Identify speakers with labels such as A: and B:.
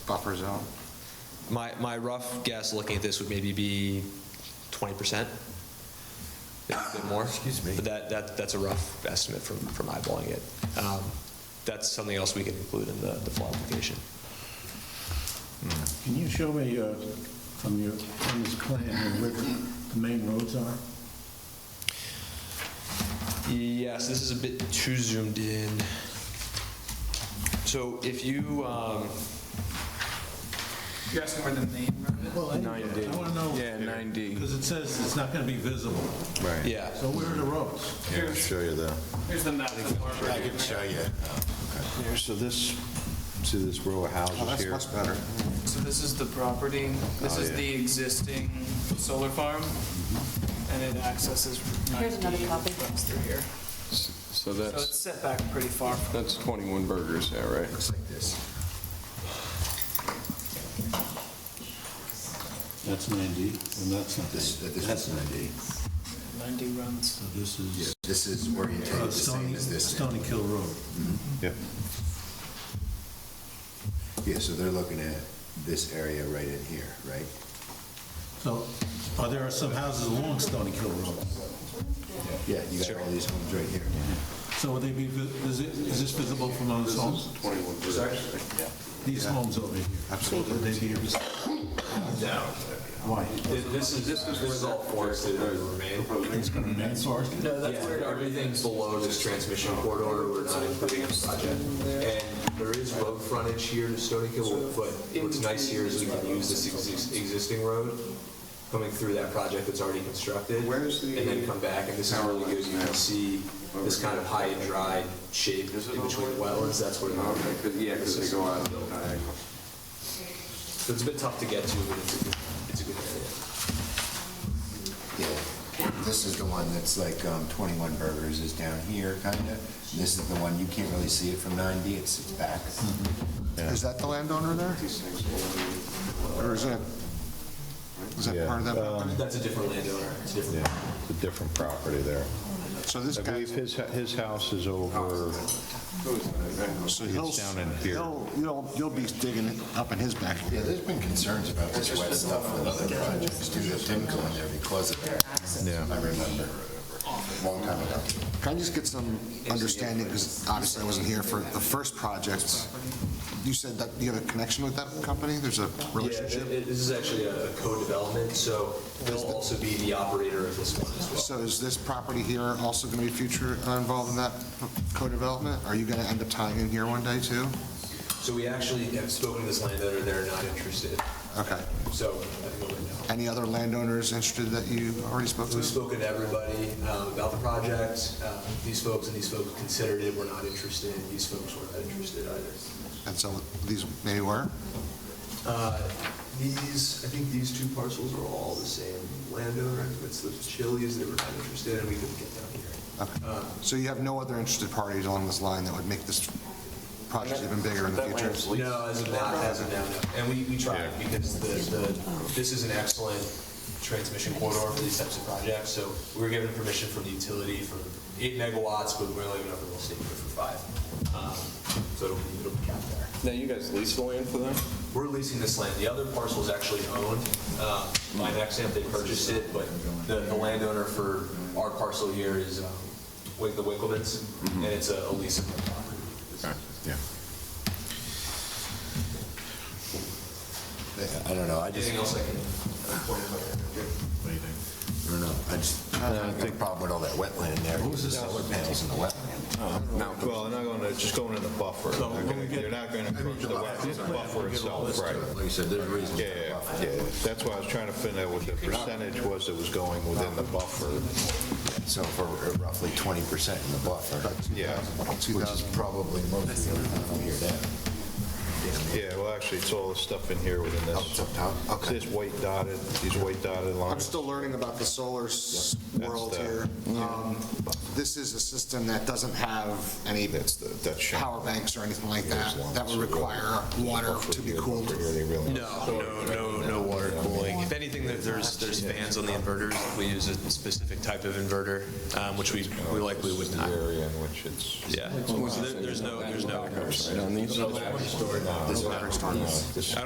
A: buffer zone?
B: My, my rough guess, looking at this, would maybe be 20%, maybe a bit more. Excuse me. But that, that, that's a rough estimate from, from eyeballing it. Um, That's something else we can include in the, the full application.
C: Can you show me uh, from your, from this plan here where the main roads are?
B: Yes, this is a bit too zoomed in. So if you, um,
D: You asked more than name, right?
C: Well, anyway,
E: 9D.
C: I want to know.
E: Yeah, 9D.
C: Because it says it's not going to be visible.
E: Right.
B: yeah,
C: So where are the roads?
E: Yeah, I'll show you the.
D: Here's the map. of Marbury.
E: you. Here, so this, see this row of houses here?
A: better.
D: So this is the property, this
E: Oh,
D: is
E: yeah.
D: the existing solar farm,
E: Mm-hmm.
D: and it accesses Route
F: Here's another
D: 90,
F: copy.
D: runs through here.
E: So
D: So it's set back pretty far from
E: that's 21 burgers there, right?
C: That's 90, and that's not. That's 90.
D: 90 runs.
C: So this is
G: This is
E: Oh,
G: oriented
C: uh,
G: the same
C: Stony,
G: as this.
C: Stony Kill Road.
E: Yep.
G: Yeah, so they're looking at this area right in here, right?
C: So, are there some houses along Stony Kill Road?
G: Yeah, you got all these homes right here.
C: So would they be, vi- is it, is this visible from those homes?
E: 21 burgers.
C: These homes over here? Absolutely. Would they be vis- Why?
H: This is, this is where the forested remain.
C: Man forested?
D: No,
H: Yeah, everything's below this transmission corridor, we're not including in the project. And there is road frontage here to Stony Hill, but what's nice here is we can use this exis- existing road coming through that project that's already constructed.
A: Where's the-
H: And then come back, and this is really good, you can see this kind of high and dry shape in between the wetlands, that's what it is. Yeah, because they go out. So it's a bit tough to get to, but it's a good, it's a good area.
G: Yeah. This is the one that's like um, 21 Burgers is down here, kind of. This is the one, you can't really see it from 9D, it's it's back.
E: Mm-hmm.
A: Is that the landowner there? Or is that, is that
E: Yeah, um,
A: part of that property?
H: That's a different landowner, it's a different.
E: Yeah, it's a different property there.
A: So this
E: I
A: guy,
E: believe his, his house is over,
A: so he'll,
E: it's down in here.
A: he'll, you'll, you'll be digging it up in his back.
G: Yeah, there's been concerns about this wet stuff with other projects too that didn't go in there because of that.
E: Yeah.
G: I remember, long time ago.
A: Can I just get some understanding, because obviously I wasn't here for the first project. You said that you had a connection with that company? There's a
H: Yeah,
A: relationship?
H: it- it- this is actually a a co-development, so they'll also be the operator of this one as well.
A: So is this property here also going to be future uh, involved in that co-development? Are you going to end up tying in here one day too?
H: So we actually have spoken to this landowner, they're not interested,
A: Okay.
H: so I think we'll know.
A: Any other landowners interested that you already spoke
H: We've
A: to?
H: spoken to everybody um, about the project, Uh, these folks and these folks considered it, were not interested, these folks were not interested either.
A: And so these maybe were?
H: Uh, These, I think these two parcels are all the same landowner, it's the Chili's, they were not interested, and we couldn't get down here.
A: Okay. So you have no other interested parties along this line that would make this project even bigger in the future?
H: No, as of now, as of now, no. And we, we tried, because the, the, this is an excellent transmission corridor for these types of projects, so we were given permission from the utility for eight megawatts, but we're only going to state it for five. Um, So it'll be, it'll be capped there.
E: Now, you guys lease the land for them?
H: We're leasing this land, the other parcel is actually owned, uh, by Nexamp, they purchased it, but the, the landowner for our parcel here is, um, Wick- the Wickelmans, and it's a a lease of their property.
E: Yeah.
G: I don't know, I just.
H: Anything else I can point out?
G: I don't know, I just, I got a problem with all that wetland there. What was the solar panels in the wetland?
E: Well, they're not going to, it's just going in the buffer. They're gonna- They're not going to approach the wetland, the buffer itself, right?
G: Like you said, there's reasons.
E: Yeah, yeah, yeah. that's why I was trying to find out what the percentage was that was going within the buffer.
G: So for uh, roughly 20% in the buffer,
E: Yeah,
G: which is probably most of the time here down.
E: yeah, well, actually, it's all the stuff in here within
G: Oh, it's
E: this.
G: up top,
E: It's
G: okay.
E: This white dotted, these white dotted
A: I'm
E: lines.
A: still learning about the solar s-
E: That's uh,
A: world
E: the-
A: here. Um, This is a system that doesn't have any
E: That's the, that's shown.
A: power banks or anything like that,
E: Here's one.
A: that would require water to be cooled.
E: Here, they really.
B: no, no, no water cooling. If anything, there- there's, there's fans on the inverters. We use a specific type of inverter, um, which we, we likely would not.
E: The area in which it's.
B: Yeah. So there- There's no, there's no.
E: Right on these? No battery storage. No battery storage.